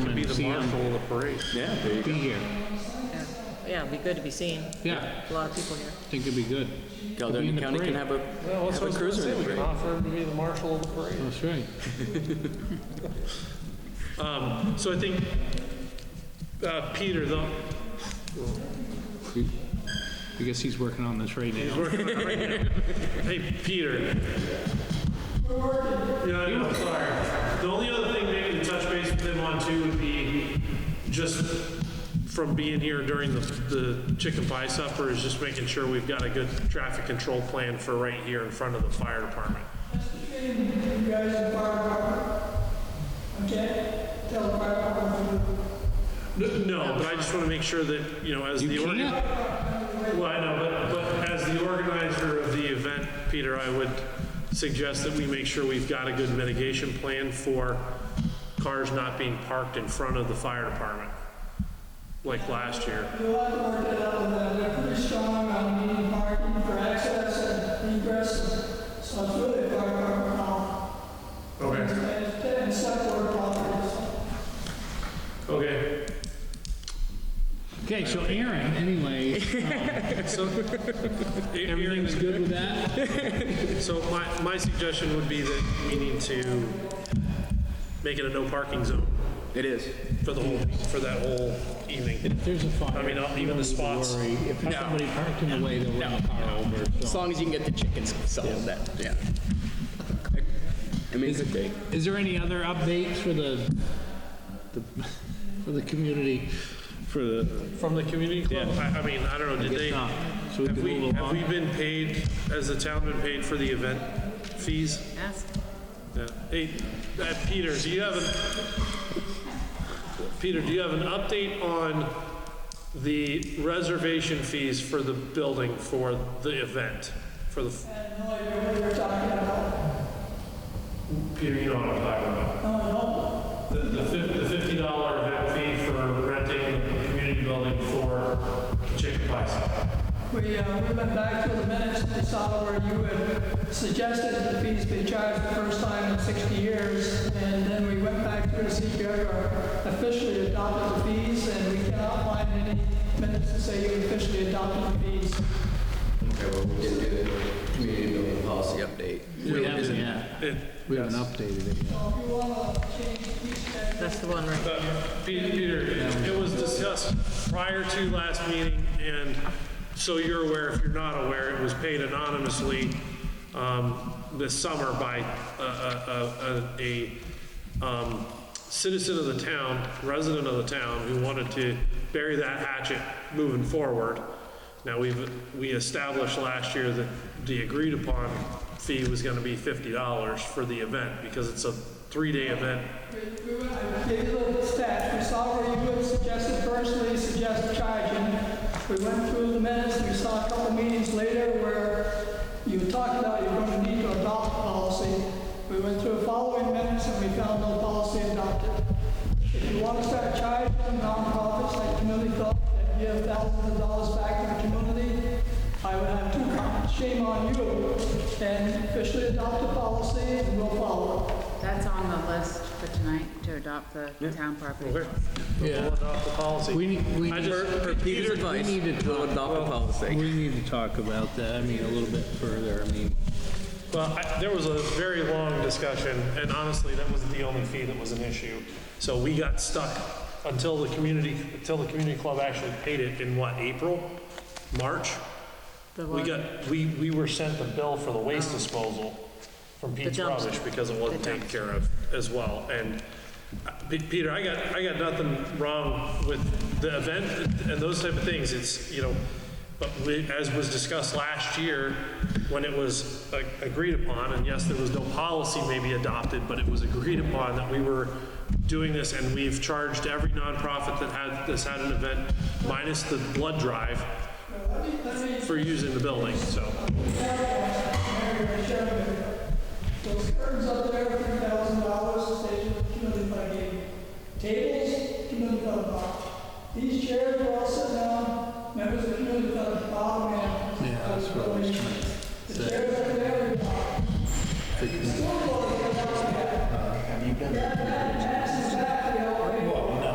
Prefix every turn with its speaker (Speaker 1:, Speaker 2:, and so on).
Speaker 1: to
Speaker 2: see um, him
Speaker 1: marshal the parade.
Speaker 3: Yeah, there you
Speaker 2: be
Speaker 3: go.
Speaker 2: here.
Speaker 4: Yeah. Yeah, it'd be good to be seen.
Speaker 2: Yeah,
Speaker 4: A lot of people here.
Speaker 2: I think it'd be good. Be in
Speaker 3: Caledonia
Speaker 2: the
Speaker 3: County can
Speaker 2: parade.
Speaker 3: have a,
Speaker 1: Well, that's
Speaker 3: have a
Speaker 1: what I was
Speaker 3: cruiser
Speaker 1: gonna
Speaker 3: in the
Speaker 1: say, we can
Speaker 3: parade.
Speaker 1: offer to be the marshal of the parade.
Speaker 2: That's right.
Speaker 1: Um, So I think, uh, Peter, though,
Speaker 2: We- I guess he's working on this right
Speaker 1: he's
Speaker 2: now.
Speaker 1: working on it right now. Hey, Peter. Yeah, I know, sorry. The only other thing maybe to touch base with him on too would be just from being here during the, the chicken pie supper is just making sure we've got a good traffic control plan for right here in front of the fire department.
Speaker 5: you guys in fire department, okay? Tell the fire department to do
Speaker 1: N- No, but I just want to make sure that, you know, as the.
Speaker 2: You
Speaker 1: organ-
Speaker 2: can't?
Speaker 1: Well, I know, but, but as the organizer of the event, Peter, I would suggest that we make sure we've got a good mitigation plan for cars not being parked in front of the fire department, like last year.
Speaker 5: We'll have to work that out with them. They're pretty strong on needing parking for access and egress, so it's really a fire department problem.
Speaker 1: Okay.
Speaker 5: And it's, and separate properties.
Speaker 1: Okay.
Speaker 2: Okay, so Aaron, anyway,
Speaker 1: So,
Speaker 2: everything's good with that?
Speaker 1: So my, my suggestion would be that we need to make it a no parking zone
Speaker 3: It is.
Speaker 1: for the whole, for that whole evening.
Speaker 2: If there's a fire.
Speaker 1: I mean, I'll-
Speaker 2: you
Speaker 1: even
Speaker 2: don't
Speaker 1: the
Speaker 2: need to
Speaker 1: spots.
Speaker 2: worry. If somebody parked in the way, they'll run a car over,
Speaker 6: As
Speaker 2: so.
Speaker 6: long as you can get the chickens sold, that, yeah.
Speaker 3: I mean, it could be.
Speaker 2: Is there any other updates for the, the- for the community? For the.
Speaker 1: From the community club? I, I mean, I don't know, did they?
Speaker 2: not. So we
Speaker 1: Have
Speaker 2: can
Speaker 1: we,
Speaker 2: move
Speaker 1: have we
Speaker 2: along.
Speaker 1: been paid, has the town been paid for the event fees?
Speaker 4: Ask.
Speaker 1: Yeah. Hey, uh, Peter, do you have an, Peter, do you have an update on the reservation fees for the building for the event? For the, f-
Speaker 5: I have no idea what you're talking about.
Speaker 1: Peter, you know what I'm talking about.
Speaker 5: No, no,
Speaker 1: The, the fif- the fifty dollar event fee for renting the community building for chicken pie supper.
Speaker 5: we, uh, we went back to the minutes and saw where you had suggested the fees be charged the first time in 60 years, and then we went back through the CPR, or officially adopted the fees, and we cannot find any minutes to say you officially adopted the fees.
Speaker 3: Okay, well, we didn't do the community building policy update.
Speaker 2: We haven't yet.
Speaker 1: It-
Speaker 2: We haven't updated it yet.
Speaker 5: So if you want to change fee schedule,
Speaker 4: That's the one, right?
Speaker 1: Uh, Pe- Peter, it was discussed prior to last meeting, and so you're aware, if you're not aware, it was paid anonymously um, this summer by a- a- a a- a, um, citizen of the town, resident of the town, who wanted to bury that hatchet moving forward. Now, we've, we established last year that the agreed upon fee was going to be $50 for the event, because it's a three-day event
Speaker 5: We went- I gave you a little stats. We saw where you had suggested personally suggested charging. We went through the minutes, we saw a couple meetings later where you talked about you're going to need to adopt policy. We went through the following minutes and we found no policy adopted. If you want to start charging nonprofits like Community Club that give thousands of dollars back to the community, I would have two comments. Shame on you. And officially adopt the policy and we'll follow it.
Speaker 7: That's on the list for tonight, to adopt the town property.
Speaker 1: We'll adopt the policy.
Speaker 2: We need, we
Speaker 1: I
Speaker 2: need,
Speaker 1: just-
Speaker 3: Per Peter's
Speaker 2: we
Speaker 3: advice,
Speaker 2: need to
Speaker 3: we'll
Speaker 2: talk-
Speaker 3: adopt the policy.
Speaker 2: we need to talk about that, I mean, a little bit further, I mean.
Speaker 1: Well, I- there was a very long discussion, and honestly, that wasn't the only fee that was an issue. So we got stuck until the community, until the community club actually paid it in what, April? March?
Speaker 4: The
Speaker 1: We
Speaker 4: one,
Speaker 1: got,
Speaker 4: the
Speaker 1: we, we were sent the bill for the waste disposal from Pete's
Speaker 4: dumpster.
Speaker 1: Rubbish because it wasn't
Speaker 4: The
Speaker 1: taken care of as well. And uh, Pe- Peter, I got, I got nothing wrong with the event and those type of things. It's, you know, but we, as was discussed last year, when it was uh, agreed upon, and yes, there was no policy maybe adopted, but it was agreed upon that we were doing this and we've charged every nonprofit that had, that's had an event minus the blood drive for using the building, so.
Speaker 5: Those curtains up there, three thousand dollars, station, community fund game. Tables, community fund box. These chairs were all sitting down, members of the community fund, bottom man. Yeah, that's what I was trying to say. The chairs up there,